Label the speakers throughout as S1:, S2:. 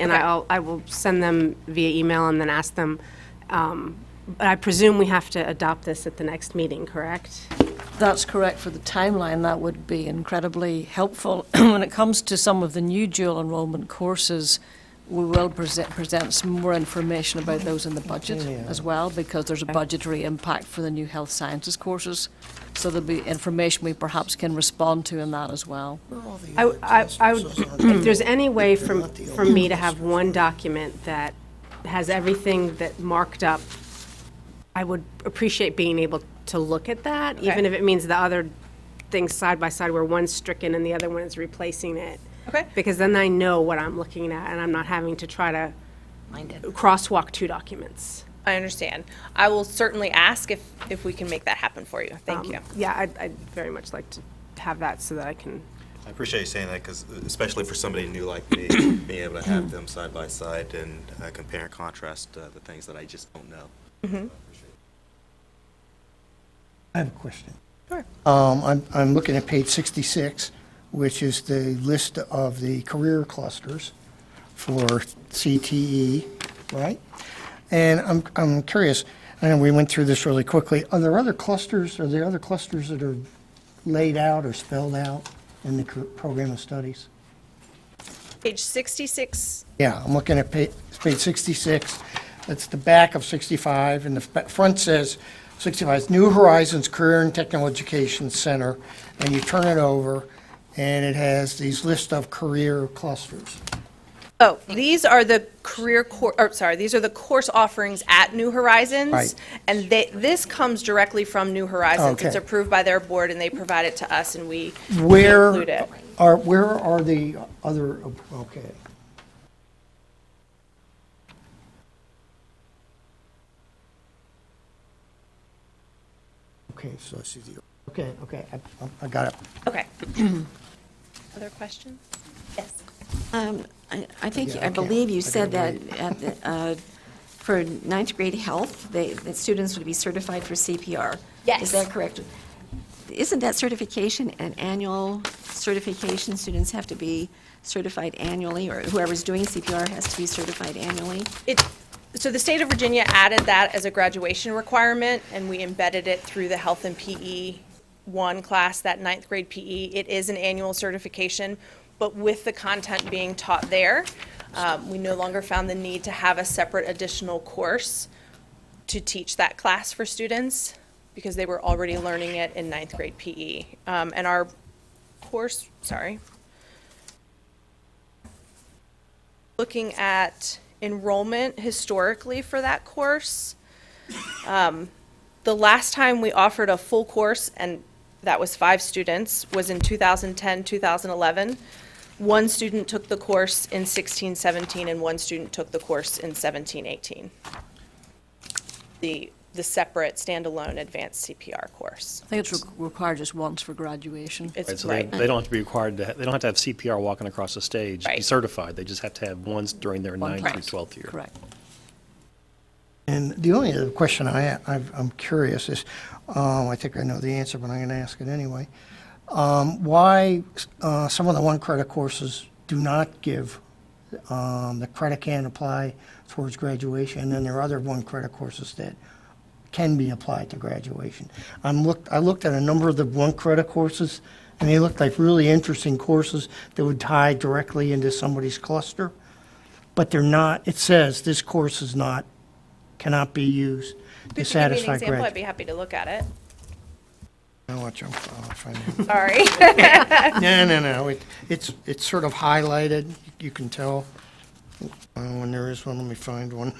S1: and
S2: Okay.
S1: I'll, I will send them via email and then ask them. um, But I presume we have to adopt this at the next meeting, correct?
S2: That's correct for the timeline. That would be incredibly helpful. When it comes to some of the new dual enrollment courses, we will present, present some more information about those in the budget as well, because there's a budgetary impact for the new health sciences courses. So there'll be information we perhaps can respond to in that as well.
S1: I, I, I would, if there's any way for, for me to have one document that has everything that marked up, I would appreciate being able to look at that, even
S3: Okay.
S1: if it means the other things side by side where one's stricken and the other one is replacing it.
S3: Okay.
S1: Because then I know what I'm looking at and I'm not having to try to crosswalk two documents.
S3: I understand. I will certainly ask if, if we can make that happen for you. Thank
S1: Um,
S3: you.
S1: Yeah, I'd, I'd very much like to have that so that I can,
S4: I appreciate you saying that because especially for somebody new like me, being able to have them side by side and uh, compare and contrast uh, the things that I just don't know.
S5: I have a question. Sure. Um, I'm, I'm looking at page 66, which is the list of the career clusters for CTE, right? And I'm, I'm curious, and we went through this really quickly, are there other clusters, are there other clusters that are laid out or spelled out in the cur- program of studies?
S3: Page 66,
S5: Yeah, I'm looking at page, page 66. That's the back of 65, and the f- front says 65 's New Horizons Career and Technical Education Center, and you turn it over, and it has these list of career clusters.
S3: oh, these are the career cour, or sorry, these are the course offerings at New Horizons.
S5: Right.
S3: And they, this comes directly from New Horizons. It's
S5: Okay.
S3: approved by their board and they provide it to us and we we include
S5: Where
S3: it.
S5: are, where are the other, okay. Okay, so I see the, okay, okay, I- I- I got it.
S3: Okay. Other questions? Yes.
S6: Um, I I think,
S5: Yeah, I
S6: I
S5: can't-
S6: believe you
S5: I
S6: said that
S5: gotta
S6: at the, uh, for ninth grade health, they, that students would be certified for CPR.
S3: Yes.
S6: Is that correct? Isn't that certification an annual certification? Students have to be certified annually, or whoever's doing CPR has to be certified annually?
S3: It, so the state of Virginia added that as a graduation requirement, and we embedded it through the health and PE one class, that ninth grade PE. It is an annual certification, but with the content being taught there, um, we no longer found the need to have a separate additional course to teach that class for students because they were already learning it in ninth grade PE. Um, and our course, sorry, looking at enrollment historically for that course. Um, The last time we offered a full course, and that was five students, was in 2010, 2011. One student took the course in 16, 17, and one student took the course in 17, 18. The, the separate standalone advanced CPR course.
S2: I think it's re- required just once for graduation.
S7: Right,
S3: It's
S7: so they,
S3: right.
S7: they don't have to be required to, ha- they don't have to have CPR walking across the stage, be
S3: Right.
S7: certified, they just have to have ones during their
S2: One
S7: ninth through
S2: class.
S7: 12th year.
S2: Correct.
S5: And the only other question I, ha- I've- I'm curious is, um, I think I know the answer, but I'm going to ask it anyway. Um, Why uh, some of the one credit courses do not give, um, the credit can apply towards graduation, and then there are other one credit courses that can be applied to graduation. I'm looked, I looked at a number of the one credit courses, and they looked like really interesting courses that would tie directly into somebody's cluster, but they're not, it says this course is not, cannot be used to
S3: If you give me an
S5: satisfy
S3: example, I'd
S5: graduate.
S3: be happy to look at it.
S5: I'll watch them, I'll find it.
S3: Sorry.
S5: No, no, no, it, it's, it's sort of highlighted, you can tell. Uh, When there is one, let me find one.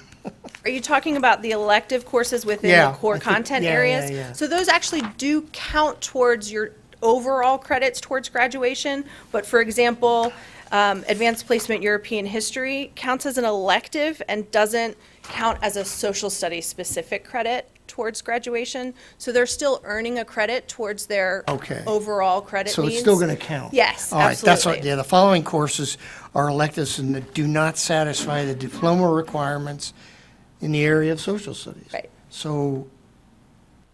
S3: Are you talking about the elective courses within
S5: Yeah,
S3: the core
S5: I think-
S3: content
S5: yeah, yeah,
S3: areas?
S5: yeah.
S3: So those actually do count towards your overall credits towards graduation, but for example, um, Advanced Placement European History counts as an elective and doesn't count as a social studies specific credit towards graduation. So they're still earning a credit towards their
S5: Okay.
S3: overall credit
S5: So it's
S3: needs.
S5: still gonna count?
S3: Yes,
S5: All right, that's what,
S3: absolutely.
S5: yeah, the following courses are electives and that do not satisfy the diploma requirements in the area of social studies.
S3: Right.
S5: So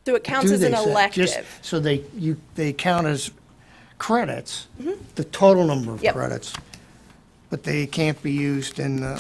S3: So it counts
S5: do
S3: as
S5: they
S3: an
S5: set, just,
S3: elective.
S5: so they, you, they count as credits, the total number of
S3: Mm-hmm. Yep.
S5: credits, but they can't be used in the